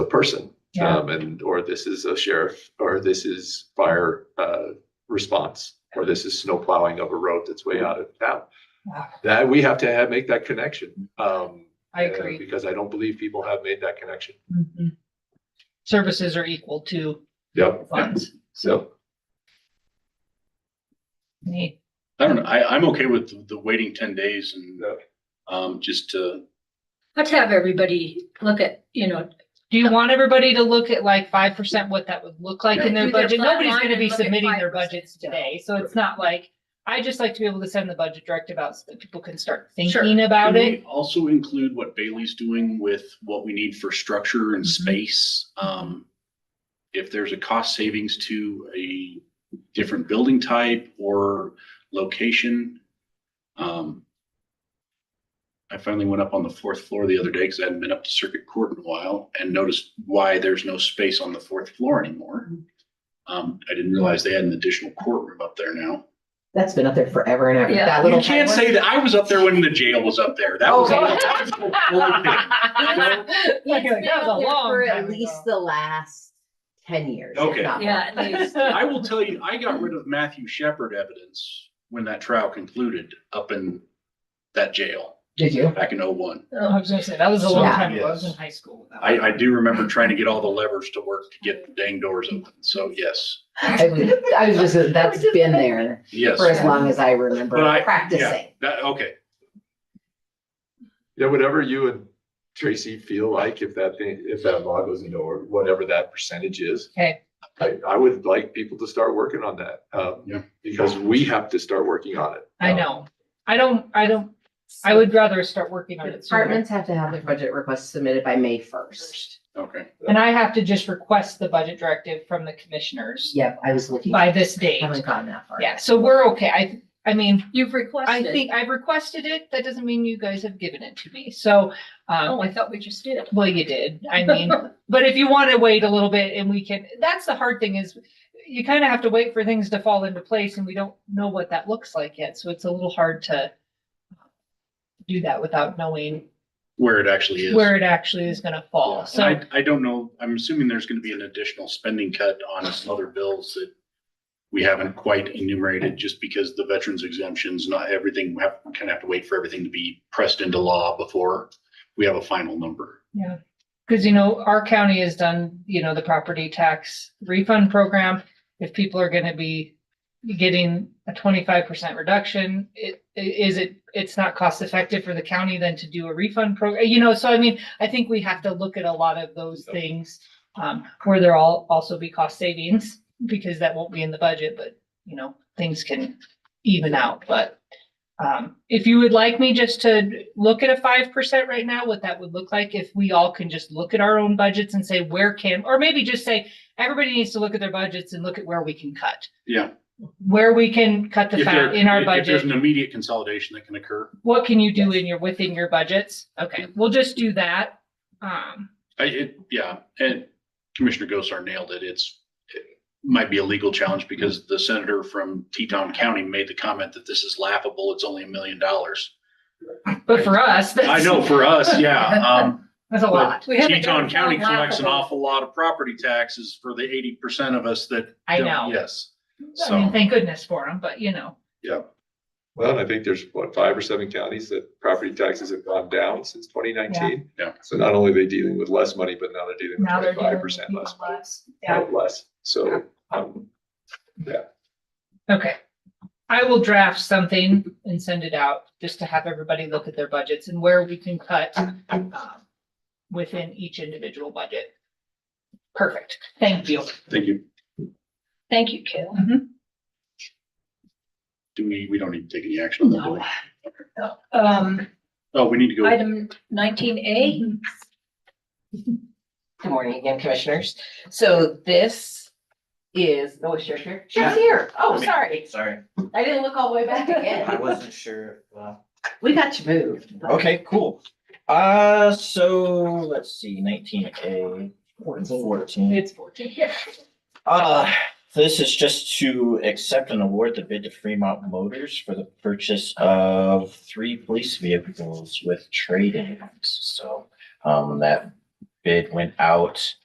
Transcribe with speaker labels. Speaker 1: a person.
Speaker 2: Yeah.
Speaker 1: Um, and, or this is a sheriff, or this is fire, uh, response, or this is snow plowing of a road that's way out of town.
Speaker 2: Wow.
Speaker 1: That, we have to have, make that connection. Um,
Speaker 2: I
Speaker 1: uh,
Speaker 2: agree.
Speaker 1: Because I don't believe people have made that connection.
Speaker 2: Mhm. Services are equal to
Speaker 1: Yep.
Speaker 2: funds.
Speaker 1: So,
Speaker 2: Neat.
Speaker 3: I don't know. I, I'm okay with the- the waiting ten days and,
Speaker 1: Okay.
Speaker 3: um, just to,
Speaker 4: Let's have everybody look at, you know.
Speaker 2: Do you want everybody to look at like five percent, what that would look like in their
Speaker 4: Yeah. Do their
Speaker 2: budget?
Speaker 4: flat
Speaker 2: Nobody's
Speaker 4: line
Speaker 2: gonna
Speaker 4: and
Speaker 2: be
Speaker 4: look at
Speaker 2: submitting their
Speaker 4: 5%
Speaker 2: budgets
Speaker 4: still.
Speaker 2: today, so it's not like, I just like to be able to send the budget directive out so that people can start
Speaker 4: Sure.
Speaker 2: thinking
Speaker 3: Can
Speaker 2: about
Speaker 3: we
Speaker 2: it.
Speaker 3: also include what Bailey's doing with what we need for structure and
Speaker 2: Mhm.
Speaker 3: space. Um, if there's a cost savings to a different building type or location. Um, I finally went up on the fourth floor the other day because I hadn't been up to Circuit Court in a while and noticed why there's no space on the fourth floor anymore.
Speaker 2: Mm-hmm.
Speaker 3: Um, I didn't realize they had an additional courtroom up there now.
Speaker 5: That's been up there forever and ever.
Speaker 4: Yeah.
Speaker 5: That
Speaker 3: You
Speaker 5: little.
Speaker 3: can't
Speaker 5: tight
Speaker 3: say that. I was up there when the jail was up there. That was.
Speaker 2: Oh, God.
Speaker 3: that was the whole thing.
Speaker 2: That
Speaker 5: one.
Speaker 2: was a long
Speaker 5: For
Speaker 2: time
Speaker 5: at
Speaker 2: ago.
Speaker 5: least the last ten years. if
Speaker 3: Okay.
Speaker 5: not
Speaker 4: Yeah, at least.
Speaker 3: I will tell you, I got rid of Matthew Shepard evidence when that trial concluded up in that jail
Speaker 5: Did you?
Speaker 3: back in oh oh-one.
Speaker 2: I was gonna say, that was a long
Speaker 5: Yeah.
Speaker 2: time ago, I was in
Speaker 3: Yes.
Speaker 2: high school. when that
Speaker 3: I,
Speaker 2: was-
Speaker 3: I do remember trying to get all the levers to work to get the dang doors open. So yes,
Speaker 5: I was, I was just, that's been there
Speaker 3: yes.
Speaker 5: for as long as I remember
Speaker 3: But I- yeah.
Speaker 5: practicing.
Speaker 3: That, okay.
Speaker 1: yeah, whatever you and Tracy feel like, if that thing, if that law goes into order, whatever that percentage is.
Speaker 2: Okay.
Speaker 1: I, I would like people to start working on that, um,
Speaker 3: Yeah.
Speaker 1: because we have to start working on it.
Speaker 2: I know, I don't, I don't, I would rather start working on it sooner.
Speaker 5: Departments have to have their budget requests submitted by May first.
Speaker 3: Okay.
Speaker 2: And I have to just request the budget directive from the commissioners
Speaker 5: Yep, I was looking.
Speaker 2: by this date.
Speaker 5: Haven't gone that far.
Speaker 2: Yeah, so we're okay. I, I mean,
Speaker 4: You've
Speaker 2: I
Speaker 4: requested.
Speaker 2: think I've requested it. That doesn't mean you guys have given it to me. So, um,
Speaker 4: Oh, I thought we just did.
Speaker 2: well, you did. I mean, but if you want to wait a little bit and we can, that's the hard thing is you kind of have to wait for things to fall into place and we don't know what that looks like yet. So it's a little hard to do that without knowing
Speaker 3: Where it actually is.
Speaker 2: where it actually is going to fall.
Speaker 3: And
Speaker 2: So
Speaker 3: I, I don't know. I'm assuming there's going to be an additional spending cut on some other bills that we haven't quite enumerated just because the veterans exemptions, not everything, we have, kind of have to wait for everything to be pressed into law before we have a final number.
Speaker 2: Because, you know, our county has done, you know, the property tax refund program. If people are gonna be getting a twenty-five percent reduction, it, i- is it, it's not cost effective for the county then to do a refund program, you know, so I mean, I think we have to look at a lot of those
Speaker 3: Yep.
Speaker 2: things. Um, where there will also be cost savings, because that won't be in the budget, but, you know, things can even out, but. Um, if you would like me just to look at a five percent right now, what that would look like, if we all can just look at our own budgets and say where can, or maybe just say. Everybody needs to look at their budgets and look at where we can cut,
Speaker 3: Yeah.
Speaker 2: where we can cut the
Speaker 3: If there-
Speaker 2: fat in our
Speaker 3: if- if There's
Speaker 2: budget.
Speaker 3: an immediate consolidation that can occur.
Speaker 2: What can you do in your, within your budgets? Okay, we'll just do that. Um,
Speaker 3: I, it, yeah, and Commissioner Gosar nailed it. It's, it might be a legal challenge because the senator from Teton County made the comment that this is laughable. It's only a million dollars.
Speaker 2: but for us,
Speaker 3: I
Speaker 2: that's,
Speaker 3: know for us, yeah. Um,
Speaker 2: that's a lot.
Speaker 4: We haven't
Speaker 3: Teton
Speaker 4: done
Speaker 3: County
Speaker 4: that
Speaker 3: collects an
Speaker 4: laughable.
Speaker 3: awful lot of property taxes for the eighty percent of us that.
Speaker 2: I
Speaker 3: don't-
Speaker 2: know.
Speaker 3: Yes,
Speaker 2: I mean,
Speaker 3: so,
Speaker 2: thank goodness for them, but you know,
Speaker 1: Well, and I think there's what, five or seven counties that property taxes have gone down since twenty nineteen.
Speaker 3: Yeah. Yeah.
Speaker 1: So not only are they dealing with less money, but now they're dealing with
Speaker 2: now they're. doing
Speaker 1: twenty-five percent
Speaker 2: even
Speaker 1: less,
Speaker 2: less. Yeah.
Speaker 1: money, less. So, um,
Speaker 2: Okay. I will draft something and send it out just to have everybody look at their budgets and where we can cut um, within each individual budget. Perfect. Thank you.
Speaker 3: thank you.
Speaker 4: Thank you, Kayla.
Speaker 3: Do we, we don't need to take any action on that, do we?
Speaker 4: Um,
Speaker 3: Oh, we need to go.
Speaker 4: item nineteen A,
Speaker 6: Good morning again, commissioners. So this is, oh, is Sheriff here?
Speaker 5: Yeah.
Speaker 6: Sheriff's here. Oh,
Speaker 7: Okay.
Speaker 6: sorry.
Speaker 7: Sorry,
Speaker 6: I didn't look all the way back
Speaker 7: I
Speaker 6: again.
Speaker 7: wasn't sure. uh,
Speaker 5: We got you moved.
Speaker 7: Okay, cool. Uh, so let's see, nineteen A, fourteen.
Speaker 2: It's fourteen.
Speaker 7: Uh, so this is just to accept and award the bid to Fremont Motors for the purchase of three police vehicles with trade-ins. So, um, that bid went out